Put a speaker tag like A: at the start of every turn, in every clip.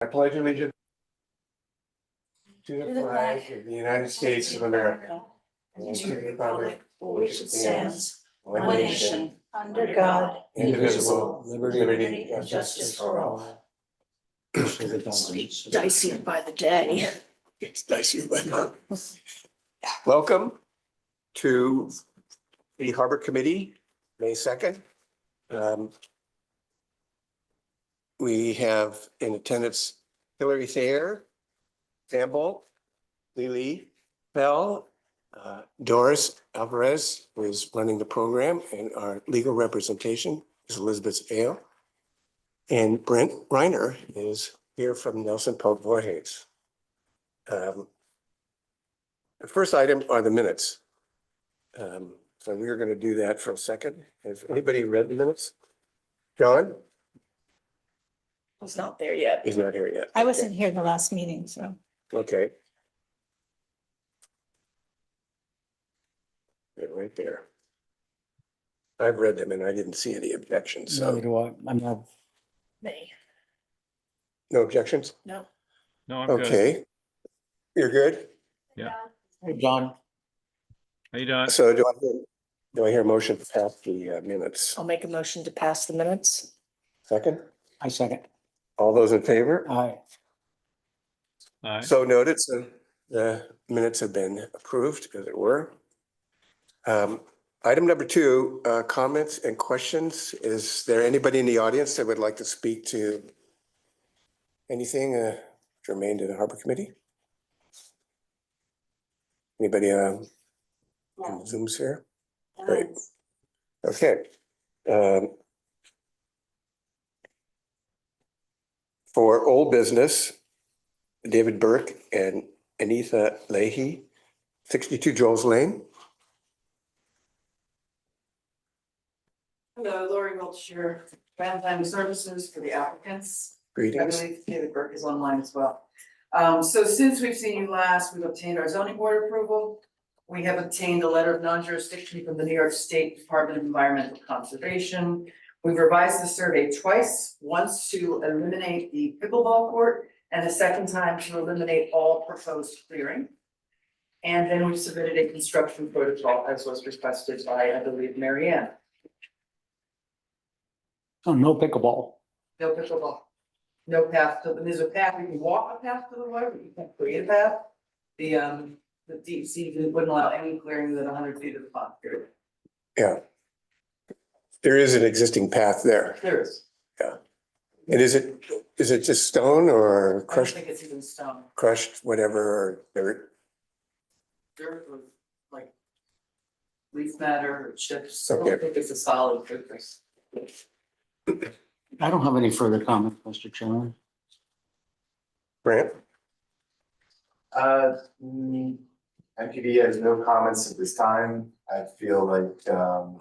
A: I pledge allegiance to
B: To
A: the flag of the United States of America, and to the republic for which it stands, one
B: one
A: nation,
B: nation, under God,
A: indivisible, liberty and justice for all.
B: dicey by the day.
A: It's dicey, but- Welcome to the Harbor Committee, May second. Um, We have in attendance Hillary Thayer, Sam Bolt, Lily Bell, uh, Doris Alvarez, who is running the program, and our legal representation is Elizabeth Vale. And Brent Reiner is here from Nelson Pope Voorhees. Um, The first item are the minutes. Um, So we are going to do that for a second. Has anybody read the minutes? John
B: Was not there yet.
A: He's not here yet.
C: I wasn't here the last meeting, so.
A: Okay. They're right there. I've read them and I didn't see any objections,
D: Neither
A: so,
D: do I. I'm not,
B: Me,
A: no objections?
B: no.
E: No, I'm good.
A: Okay. You're good?
D: Hey, John,
E: How you doing?
A: So do I, hear- do I hear a motion to pass the uh, minutes?
B: I'll make a motion to pass the minutes.
A: Second?
D: I second.
A: All those in favor?
D: Aye.
E: All right.
A: So noted, so the minutes have been approved, as it were. Um, Item number two, uh, comments and questions. Is there anybody in the audience that would like to speak to anything uh, germane to the Harbor Committee? Anybody um, in the Zoom sphere? Great. Okay. Um, For old business, David Burke and Anita Leahy, sixty-two Joel's Lane.
F: Hello, Lori Wiltshire, Valentine Services for the applicants. I
A: Greetings.
F: believe David Burke is online as well. Um, so since we've seen you last, we've obtained our zoning board approval. We have obtained a letter of non-jurisdiction from the New York State Department of Environmental Conservation. We've revised the survey twice, once to eliminate the pickleball court and a second time to eliminate all proposed clearing. And then we submitted a construction protocol as was requested by, I believe, Mary Ann.
D: Oh, no pickleball.
F: No pickleball. No path to, there's a path, you can walk a path to the water, but you can't create a path. The um, the deep sea wouldn't allow any clearing than hundred feet of the pond, period.
A: Yeah. There is an existing path there.
F: There is.
A: And is it, is it just stone or
F: I don't
A: crushed,
F: think it's even stone.
A: crushed, whatever, or dirt?
F: Dirt or like leaf matter or chips. I
A: Okay.
F: don't think it's a solid surface.
D: I don't have any further comments, Mr. Chairman.
A: Grant?
G: Uh, mm, MPD has no comments at this time. I feel like, um,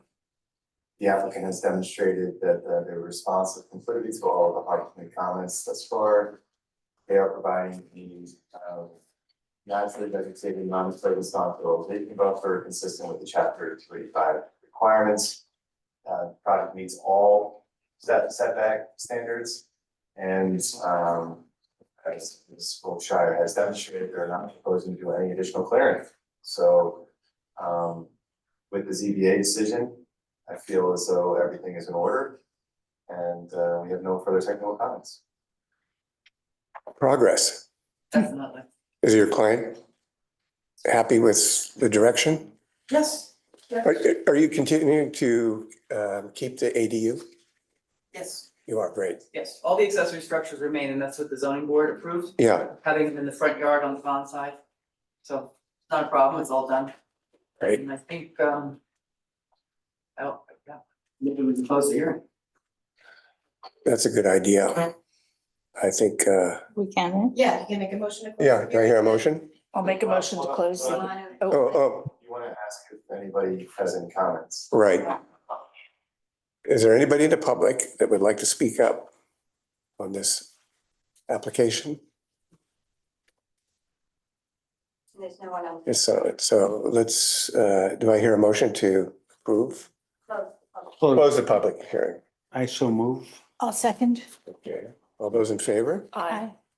G: the applicant has demonstrated that uh, they were responsive completely to all of the public comments thus far. They are providing the, um, naturally vegetated non-flavorful stockpile vaping buffer consistent with the chapter thirty-five requirements. Uh, product meets all set setback standards and, um, as Ms. Wiltshire has demonstrated, they're not proposing to do any additional clearing. So, um, with the ZBA decision, I feel as though everything is in order. And, uh, we have no further technical comments.
A: Progress.
F: Definitely.
A: Is your client happy with the direction?
F: Yes,
A: Are, are you continuing to, um, keep the ADU?
F: yes,
A: You are, great.
F: yes. All the accessory structures remain and that's what the zoning board approved,
A: Yeah,
F: having them in the front yard on the pond side. So not a problem, it's all done.
A: Right.
F: And I think, um. Oh, yeah, maybe we can close the hearing.
A: that's a good idea. I think, uh,
C: We can,
H: Yeah, you can make a motion to. close
A: yeah,
H: the
A: do I hear a motion?
B: I'll make a motion to close
H: hearing.
B: the,
H: Line
A: Oh,
B: oh,
A: oh,
G: You wanna ask if anybody has any comments?
A: right. Is there anybody in the public that would like to speak up on this application?
H: and There's no one else.
A: Yes, So, so let's, uh, do I hear a motion to approve?
H: Close the public.
A: Close the public hearing.
D: I so move.
C: I'll second.
A: Okay. All those in favor?
B: aye.
C: Aye.